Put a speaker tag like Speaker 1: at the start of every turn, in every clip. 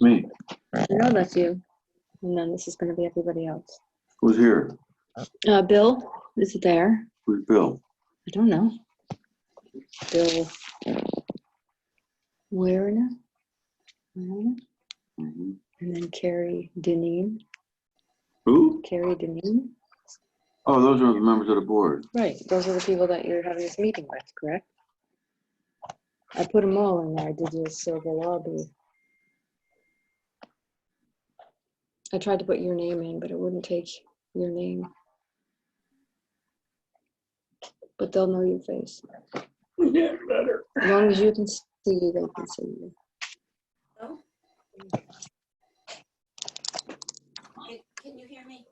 Speaker 1: me.
Speaker 2: No, that's you. And then this is gonna be everybody else.
Speaker 1: Who's here?
Speaker 2: Uh, Bill is there.
Speaker 1: Who's Bill?
Speaker 2: I don't know. Bill. uh, Where now? And
Speaker 1: Mhm.
Speaker 2: then Carrie Deneen,
Speaker 1: Who?
Speaker 2: Carrie Deneen.
Speaker 1: Oh, those are the members of the board.
Speaker 2: Right, those are the people that you're having this meeting with, correct? I put them all in there. I did use Silver Lobby. I tried to put your name in, but it wouldn't take your name. But they'll know your face.
Speaker 1: Yeah, better.
Speaker 2: As long as you can see you, they can see you.
Speaker 3: Can you hear me?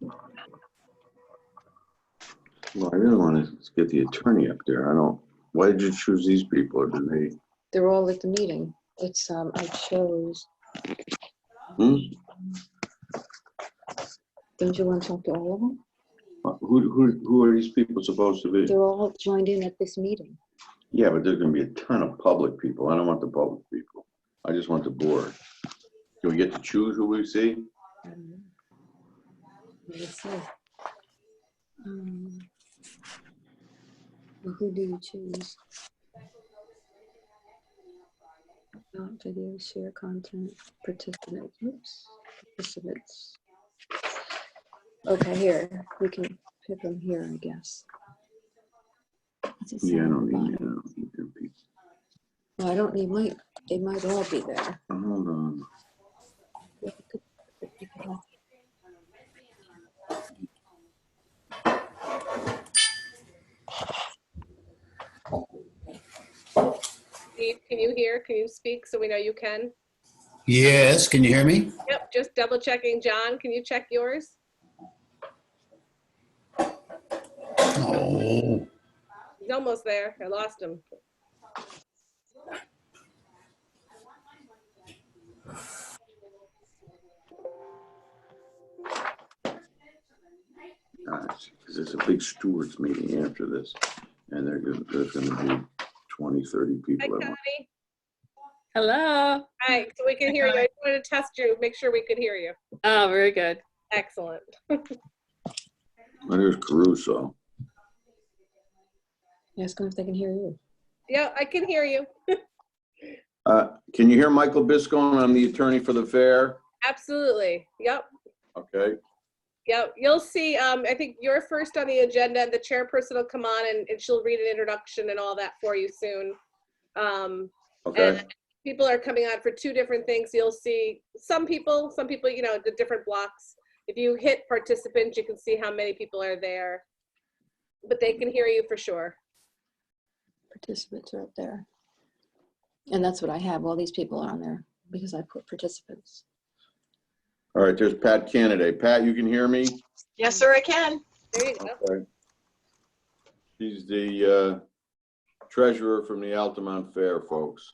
Speaker 1: Well, I didn't want to get the attorney up there. I don't, why did you choose these people? Did they,
Speaker 2: They're all at the meeting. It's, um, I chose,
Speaker 1: hmm?
Speaker 2: don't you want to talk to all of them?
Speaker 1: Uh, Who, who, who are these people supposed to be?
Speaker 2: They're all joined in at this meeting.
Speaker 1: Yeah, but there's gonna be a ton of public people. I don't want the public people. I just want the board. Do we get to choose who we see?
Speaker 2: I don't know. Let's see. Um, well, Who do you choose? Not video, share content, participants, oops, participants. Okay, here, we can pick them here, I guess. What's it say
Speaker 1: Yeah, I
Speaker 2: on the
Speaker 1: don't need, I
Speaker 2: bottom?
Speaker 1: don't need their people.
Speaker 2: Well, I don't need, might, they might all be there.
Speaker 1: Hold on.
Speaker 4: Steve, can you hear? Can you speak so we know you can?
Speaker 5: Yes, can you hear me?
Speaker 4: Yep, just double checking. John, can you check yours?
Speaker 5: Oh,
Speaker 4: He's almost there. I lost him.
Speaker 1: Ah, Because it's a big stewards meeting after this, and they're gonna, there's gonna be 20, 30
Speaker 4: Hi,
Speaker 1: people. at once.
Speaker 4: Connie.
Speaker 6: Hello.
Speaker 4: Hi, so we can hear you. I just wanted to test you, make sure we could hear you.
Speaker 6: Oh, very good.
Speaker 4: Excellent.
Speaker 1: Well, There's Caruso.
Speaker 2: Ask them if they can hear you.
Speaker 4: Yeah, I can hear you.
Speaker 1: Uh, Can you hear Michael Biscone? I'm the attorney for the fair.
Speaker 4: Absolutely. Yep,
Speaker 1: Okay,
Speaker 4: yep. You'll see, um, I think you're first on the agenda. The chairperson will come on and, and she'll read an introduction and all that for you soon. Um,
Speaker 1: okay.
Speaker 4: And people are coming on for two different things. You'll see some people, some people, you know, the different blocks. If you hit participants, you can see how many people are there. But they can hear you for sure.
Speaker 2: participants are up there. And that's what I have. All these people are on there because I put participants.
Speaker 1: All right, there's Pat Kennedy. Pat, you can hear me?
Speaker 3: Yes, sir, I can.
Speaker 4: There you go.
Speaker 1: Okay. She's the uh, treasurer from the Altamont Fair, folks.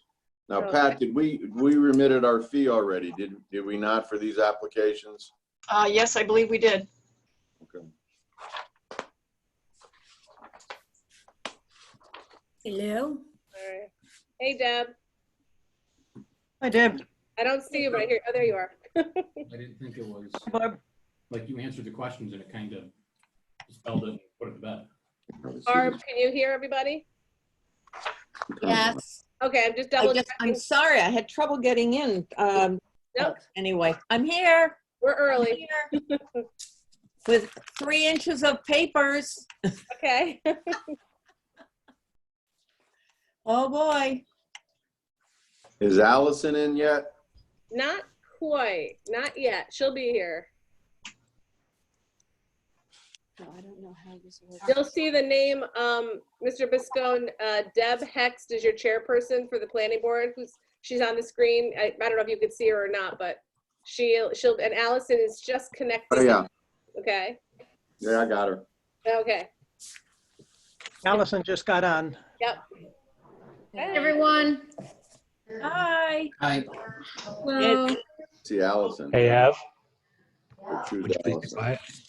Speaker 1: Now, Pat, did we, we remitted our fee already, did, did we not for these applications?
Speaker 3: Uh, yes, I believe we did.
Speaker 1: Okay.
Speaker 7: Hello?
Speaker 4: All right. Hey, Deb.
Speaker 8: I did.
Speaker 4: I don't see you right here. Oh, there you are.
Speaker 9: I didn't think it was,
Speaker 8: Barb,
Speaker 9: like, you answered the questions and it kind of spelled it, and put it to bed.
Speaker 4: Barb, can you hear everybody?
Speaker 7: Yes.
Speaker 4: Okay, I'm just
Speaker 7: I
Speaker 4: double
Speaker 7: just, I'm
Speaker 4: checking.
Speaker 7: sorry, I had trouble getting in. Um
Speaker 4: Nope.
Speaker 7: Anyway, I'm here.
Speaker 4: We're
Speaker 7: I'm
Speaker 4: early.
Speaker 7: here. With three inches of papers.
Speaker 4: Okay.
Speaker 7: Oh, boy.
Speaker 1: Is Allison in yet?
Speaker 4: Not quite. Not yet. She'll be here.
Speaker 2: No, I don't know how this works.
Speaker 4: You'll see the name, um, Mr. Biscone, uh, Deb Hext is your chairperson for the planning board, who's, she's on the screen. I, I don't know if you could see her or not, but she, she'll, and Allison is just
Speaker 1: Oh,
Speaker 4: connecting.
Speaker 1: yeah,
Speaker 4: Okay,
Speaker 1: yeah, I got her.
Speaker 4: okay.
Speaker 8: Allison just got on.
Speaker 7: Everyone. Hi.
Speaker 5: hi.
Speaker 1: See Allison.
Speaker 10: Hey, Av.
Speaker 1: Or choose
Speaker 10: Would you please be
Speaker 1: Allison.
Speaker 10: quiet?